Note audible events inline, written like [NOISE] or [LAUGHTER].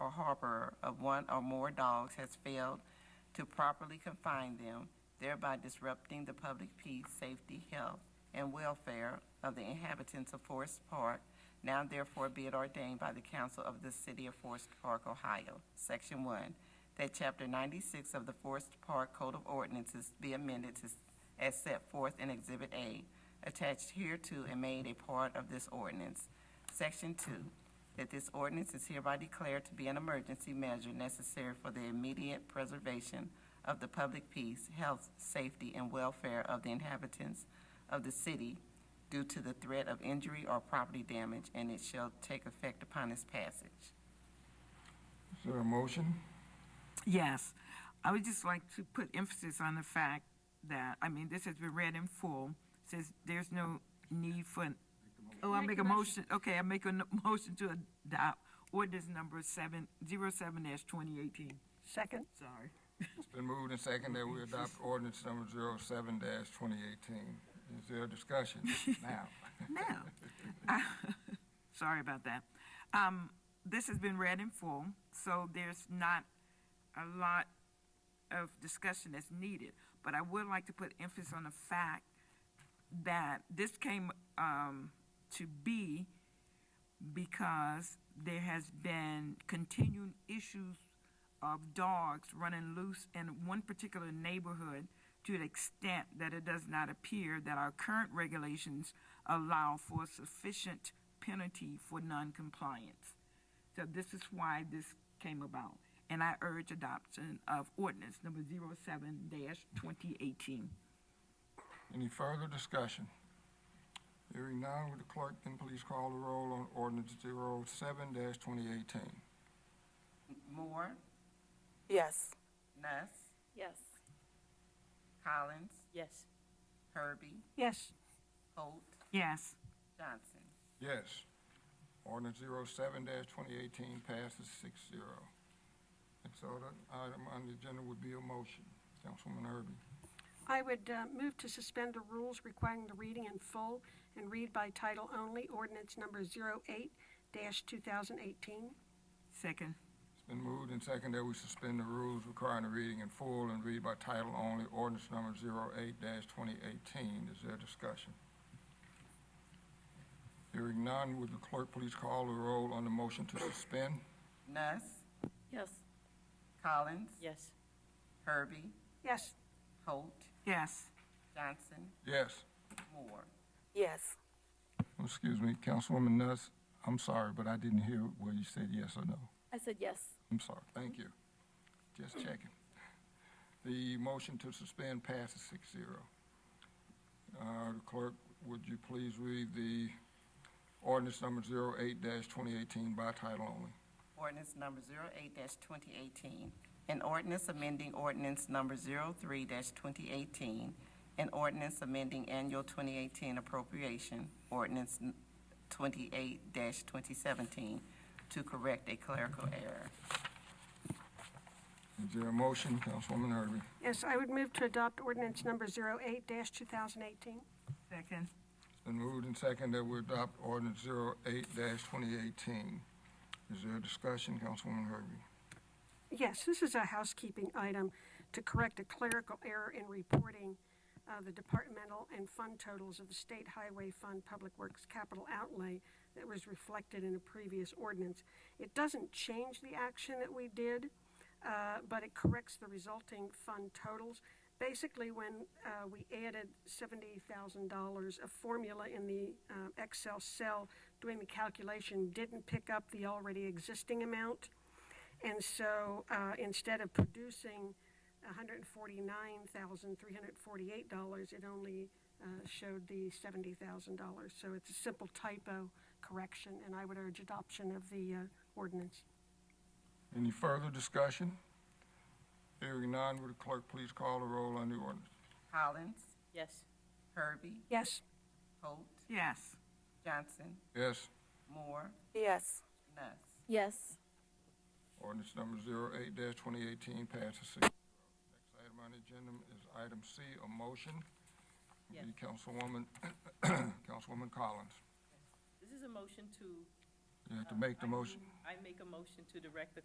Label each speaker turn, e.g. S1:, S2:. S1: or harborer of one or more dogs has failed to properly confine them, thereby disrupting the public peace, safety, health, and welfare of the inhabitants of Forest Park, now therefore be it ordained by the council of the city of Forest Park, Ohio. Section one, that chapter ninety-six of the Forest Park Code of Ordinances be amended to, s- as set forth in Exhibit A, attached hereto and made a part of this ordinance. Section two, that this ordinance is hereby declared to be an emergency measure necessary for the immediate preservation of the public peace, health, safety, and welfare of the inhabitants of the city due to the threat of injury or property damage, and it shall take effect upon its passage.
S2: Is there a motion?
S3: Yes, I would just like to put emphasis on the fact that, I mean, this has been read in full, says there's no need for, an- oh, I make a motion, okay, I make a n- motion to adopt ordinance number seven, zero seven dash twenty eighteen. Second. Sorry. [LAUGHS]
S2: It's been moved and seconded that we adopt ordinance number 07 twenty eighteen. Is there a discussion now?
S3: Now, I- Uh, sorry about that. Um, this has been read in full, so there's not a lot of discussion that's needed. But I would like to put emphasis on the fact that this came um, to be because there has been continuing issues of dogs running loose in one particular neighborhood to the extent that it does not appear that our current regulations allow for sufficient penalty for noncompliance. So this is why this came about, and I urge adoption of ordinance number 07-2018.
S2: Any further discussion? Hearing none, would the clerk then please call the roll on ordinance 07 twenty eighteen?
S1: Moore,
S4: Yes.
S1: Nuss,
S5: Yes.
S1: Collins,
S5: Yes.
S1: Herbie,
S4: Yes.
S1: Holt,
S3: Yes.
S1: Johnson.
S2: Yes. Ordinance 07 twenty eighteen passes six zero. And so that item on the agenda would be a motion. Councilwoman Irby.
S6: I would uh, move to suspend the rules requiring the reading in full and read by title only ordinance number 08-2018.
S3: Second.
S2: It's been moved and seconded that we suspend the rules requiring a reading in full and read by title only ordinance number 08-2018. Is there discussion? Hearing none, would the clerk please call the roll on the motion to suspend?
S1: Nuss,
S5: Yes.
S1: Collins,
S5: Yes.
S1: Herbie,
S6: Yes,
S1: Holt,
S3: Yes.
S1: Johnson,
S2: Yes.
S1: Moore.
S4: Yes.
S2: Excuse me, Councilwoman Nuss, I'm sorry, but I didn't hear where you said yes or no.
S5: I said yes.
S2: I'm sorry, thank you. Just checking. The motion to suspend passes six zero. Uh, clerk, would you please read the ordinance number zero eight dash twenty eighteen by title only?
S1: Ordinance number 08-2018, an ordinance amending ordinance number 03-2018, an ordinance amending annual 2018 appropriation, ordinance n- 28-2017, to correct a clerical error.
S2: Is there a motion, Councilwoman Irby?
S6: yes, I would move to adopt ordinance number 08-2018.
S3: Second.
S2: It's been moved and seconded that we adopt ordinance zero eight dash twenty eighteen. Is there a discussion, Councilwoman Irby?
S6: Yes, this is a housekeeping item to correct a clerical error in reporting uh, the departmental and fund totals of the State Highway Fund Public Works capital outlay that was reflected in a previous ordinance. It doesn't change the action that we did, uh, but it corrects the resulting fund totals. Basically, when uh, we added $70,000 of formula in the um, Excel cell, doing the calculation didn't pick up the already existing amount. And so uh, instead of producing $149,348, it only uh, showed the $70,000. So it's a simple typo correction, and I would urge adoption of the uh, ordinance.
S2: Any further discussion? Hearing none, would the clerk please call the roll on the ordinance?
S1: Collins,
S5: Yes.
S1: Herbie,
S6: Yes,
S1: Holt,
S3: Yes.
S1: Johnson,
S2: Yes.
S1: Moore,
S4: Yes.
S1: Nuss.
S5: Yes.
S2: Ordinance number 08 twenty eighteen passes six. Next item on the agenda is item C, a motion. Would
S5: Yes.
S2: be Councilwoman, [COUGHS] Councilwoman Collins.
S5: This is a motion to.
S2: You have to make the
S5: I-
S2: motion.
S5: I make a motion to direct the